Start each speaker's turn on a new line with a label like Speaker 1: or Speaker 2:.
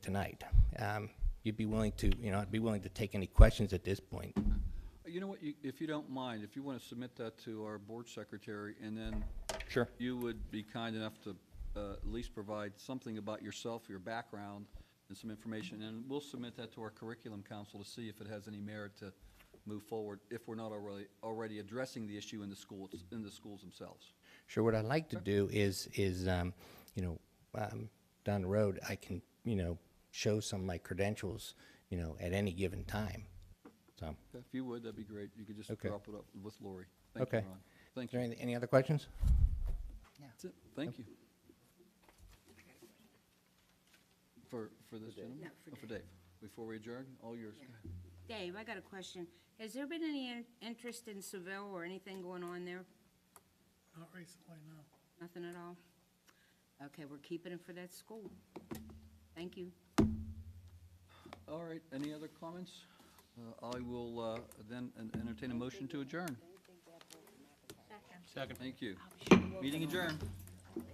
Speaker 1: tonight. Um, You'd be willing to, you know, I'd be willing to take any questions at this point.
Speaker 2: You know what, you- if you don't mind, if you want to submit that to our board secretary, and then
Speaker 1: Sure.
Speaker 2: you would be kind enough to uh, at least provide something about yourself, your background, and some information, and we'll submit that to our curriculum council to see if it has any merit to move forward, if we're not already, already addressing the issue in the schools, in the schools themselves.
Speaker 1: Sure, what I'd like to do is, is, um, you know, um, down the road, I can, you know, show some of my credentials, you know, at any given time, so.
Speaker 2: If you would, that'd be great. You could just
Speaker 1: Okay.
Speaker 2: drop it up with Lori. Thank you,
Speaker 1: Okay.
Speaker 2: Ron.
Speaker 1: Is
Speaker 2: Thank
Speaker 1: there
Speaker 2: you.
Speaker 1: any, any other questions?
Speaker 2: That's it. Thank you. For, for this gentleman?
Speaker 3: No, for
Speaker 2: Oh, For Dave. Before we adjourn, all yours.
Speaker 3: Dave, I got a question. Has there been any in- interest in Seville or anything going on there?
Speaker 4: Not recently, no.
Speaker 3: Nothing at all? Okay, we're keeping it for that school. Thank you.
Speaker 2: All right, any other comments? Uh, I will uh, then en- entertain a motion to adjourn. Second. Thank you. Meeting adjourned.